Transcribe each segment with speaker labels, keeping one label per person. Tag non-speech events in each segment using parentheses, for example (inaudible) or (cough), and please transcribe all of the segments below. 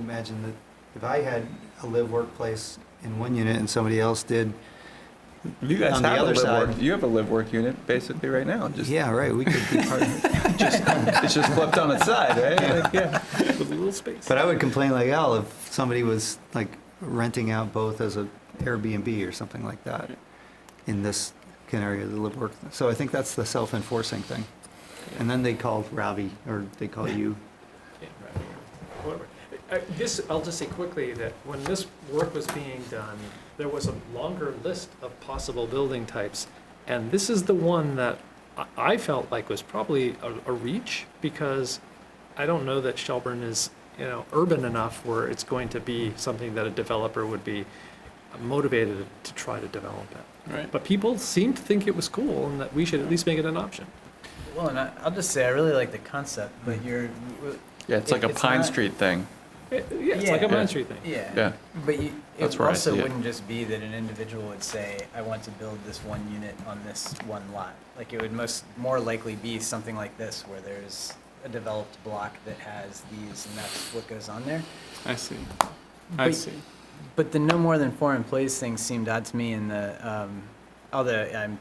Speaker 1: imagine that if I had a live workplace in one unit and somebody else did,
Speaker 2: You guys
Speaker 1: On the
Speaker 2: have a
Speaker 1: other
Speaker 2: live work,
Speaker 1: side-
Speaker 2: you have a live work unit basically right now. Just,
Speaker 1: yeah, right, we could be (laughs) part of it.
Speaker 2: It's just flipped on its side, right? Like, yeah.
Speaker 3: with a little space.
Speaker 1: But I would complain like hell if somebody was like renting out both as a Airbnb or something like that in this canary of the live work. So I think that's the self-enforcing thing. And then they call Ravi or they call you.
Speaker 3: Yeah, right, or Whatever. Uh, This, I'll just say quickly that when this work was being done, there was a longer list of possible building types. And this is the one that I- I felt like was probably a, a reach because I don't know that Shelburne is, you know, urban enough where it's going to be something that a developer would be motivated to try to develop it.
Speaker 2: Right.
Speaker 3: But people seemed to think it was cool and that we should at least make it an option.
Speaker 4: Well, and I, I'll just say I really like the concept, but you're, w-
Speaker 2: Yeah, it's
Speaker 4: It-
Speaker 2: like a
Speaker 4: it's
Speaker 2: Pine
Speaker 4: not-
Speaker 2: Street thing.
Speaker 3: It- Eh, Yeah, it's like
Speaker 4: Yeah.
Speaker 3: a Main Street thing.
Speaker 4: yeah.
Speaker 2: Yeah.
Speaker 4: But you,
Speaker 2: That's
Speaker 4: it
Speaker 2: where I
Speaker 4: also
Speaker 2: see it.
Speaker 4: wouldn't just be that an individual would say, I want to build this one unit on this one lot. Like it would most more likely be something like this, where there's a developed block that has these, and that's what goes on there.
Speaker 5: I see. I
Speaker 4: But-
Speaker 5: see.
Speaker 4: But the no more than four employees thing seemed odd to me in the, um, although I'm,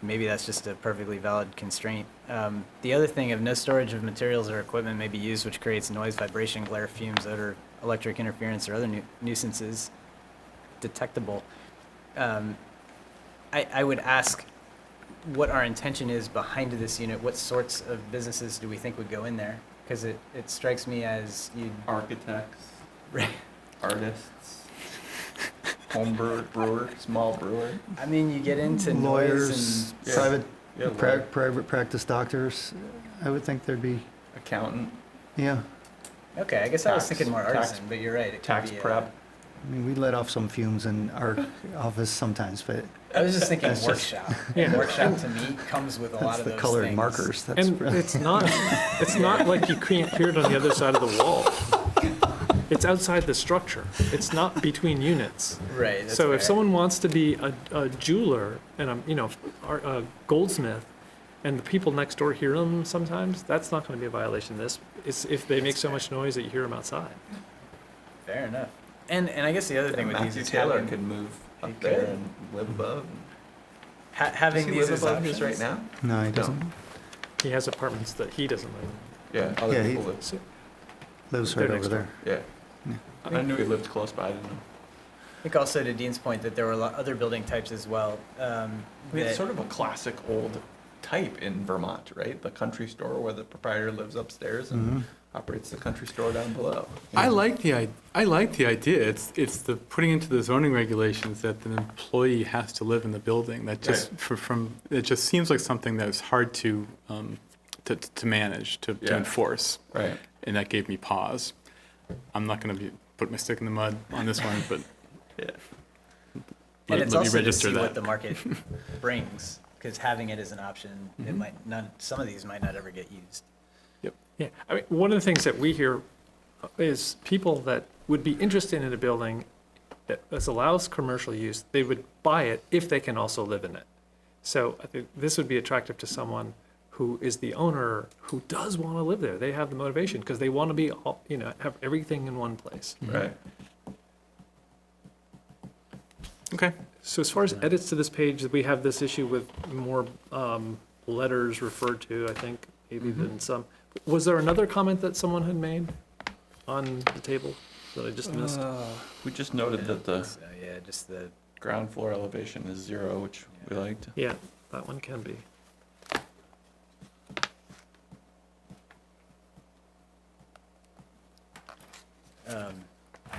Speaker 4: maybe that's just a perfectly valid constraint. Um, the other thing of no storage of materials or equipment may be used which creates noise, vibration, glare, fumes, odor, electric interference, or other nu- nuisances detectable. Um, I, I would ask what our intention is behind this unit. What sorts of businesses do we think would go in there? Because it, it strikes me as you'd
Speaker 2: Architects, artists, home brewer, brewer, small brewer.
Speaker 4: I mean, you get into
Speaker 1: Lawyers,
Speaker 4: noise
Speaker 2: Yeah.
Speaker 1: private,
Speaker 2: Yeah,
Speaker 1: pra-
Speaker 2: lawyer,
Speaker 1: private practice doctors, I would think there'd be,
Speaker 2: accountant,
Speaker 1: yeah.
Speaker 4: and okay. I guess I was
Speaker 2: Tax-
Speaker 4: thinking more
Speaker 2: tax-
Speaker 4: artisan, but you're right. It
Speaker 2: tax
Speaker 4: could be uh,
Speaker 2: prep.
Speaker 1: I mean, we let off some fumes in our office sometimes, but
Speaker 4: A, I was just thinking
Speaker 1: That's just-
Speaker 2: (laughs)
Speaker 4: workshop.
Speaker 3: Yeah.
Speaker 4: Workshop to me comes with a lot
Speaker 1: that's
Speaker 4: of
Speaker 1: the
Speaker 4: those
Speaker 1: colored
Speaker 4: things.
Speaker 1: markers. That's
Speaker 3: And it's not, it's not like you can't hear it on the other side of the wall. It's outside the structure. It's not between units.
Speaker 4: Right. that's
Speaker 3: So if
Speaker 4: fair.
Speaker 3: someone wants to be a, a jeweler and a, you know, ar- a goldsmith, and the people next door hear them sometimes, that's not gonna be a violation of this. It's if they make so much noise that you hear them outside.
Speaker 4: fair enough. And and I guess the other thing with these
Speaker 2: Matthew
Speaker 4: is
Speaker 2: Taylor
Speaker 4: having,
Speaker 2: could move
Speaker 4: He
Speaker 2: up there
Speaker 4: could.
Speaker 2: and live above.
Speaker 4: ha-
Speaker 2: Does
Speaker 4: having
Speaker 2: he
Speaker 4: these
Speaker 2: live
Speaker 4: as
Speaker 2: above just
Speaker 4: options
Speaker 2: right now?
Speaker 1: No, he
Speaker 2: No.
Speaker 1: doesn't.
Speaker 3: He has apartments that he doesn't live in.
Speaker 2: Yeah, other
Speaker 1: Yeah, he-
Speaker 2: people live,
Speaker 3: So-
Speaker 1: Lives
Speaker 3: They're
Speaker 1: right
Speaker 3: next
Speaker 1: over there.
Speaker 2: yeah.
Speaker 1: Yeah.
Speaker 2: I knew he lived close by, I didn't know.
Speaker 4: I think also to Dean's point that there were a lot other building types as well. Um,
Speaker 2: I mean, it's
Speaker 4: that-
Speaker 2: sort of a classic old type in Vermont, right? The country store where the proprietor lives upstairs and
Speaker 1: Mhm.
Speaker 2: operates the country store down below.
Speaker 5: Mm-hmm. I like the, i- I like the idea. It's, it's the putting into the zoning regulations that an employee has to live in the building. That just, for- from, it just seems like something that is hard to, um, to, to manage, to to
Speaker 2: Yeah.
Speaker 5: enforce.
Speaker 2: Right.
Speaker 5: And that gave me pause. I'm not going to be, put my stick in the mud on this one, but
Speaker 2: Yeah.
Speaker 5: let
Speaker 4: and it's
Speaker 5: let me
Speaker 4: also to
Speaker 5: register
Speaker 4: see what the
Speaker 5: that. (laughs)
Speaker 4: market brings, because having it as an option,
Speaker 2: Mm-hmm.
Speaker 4: it might not. Some of these might not ever get used.
Speaker 3: Yeah, I mean, one of the things that we hear is people that would be interested in a building that that allows commercial use, they would buy it if they can also live in it. So I think this would be attractive to someone who is the owner, who does want to live there. They have the motivation because they want to be, all you know, have everything in one place.
Speaker 2: Right.
Speaker 5: Okay.
Speaker 3: So as far as edits to this page, we have this issue with more um, letters referred to, I think, maybe than some. Was there another comment that someone had made on the table that I
Speaker 5: Mm-hmm.
Speaker 3: just
Speaker 2: Uh,
Speaker 3: missed?
Speaker 2: We just noted that the
Speaker 4: So yeah, just the
Speaker 2: ground floor elevation is zero, which we liked.
Speaker 3: Yeah, that one can be.
Speaker 4: Um,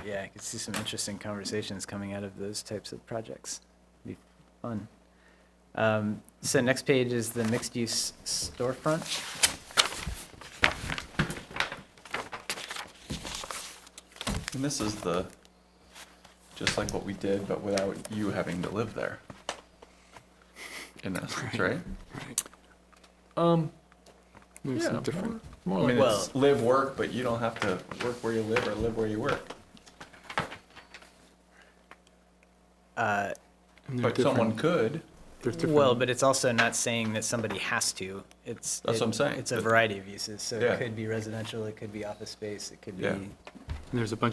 Speaker 4: yeah, I could see some interesting conversations coming out of those types of projects. Be fun. Um, so next page is the mixed-use storefront.
Speaker 2: And this is the, just like what we did, but without you having to live there. In essence, right?
Speaker 3: Um,
Speaker 5: Maybe
Speaker 3: Yeah,
Speaker 5: some different.
Speaker 2: I
Speaker 3: more like,
Speaker 2: mean,
Speaker 4: Well-
Speaker 2: it's live, work, but you don't have to work where you live or live where you work.
Speaker 4: Uh,
Speaker 5: and they're
Speaker 2: But someone
Speaker 5: different-
Speaker 2: could,
Speaker 5: there's different-
Speaker 4: well, but it's also not saying that somebody has to. It's
Speaker 2: That's what I'm saying.
Speaker 4: It's a variety of uses, so
Speaker 2: Yeah.
Speaker 4: it could be residential, it could be office space, it could
Speaker 2: Yeah.
Speaker 4: be
Speaker 5: and There's a bunch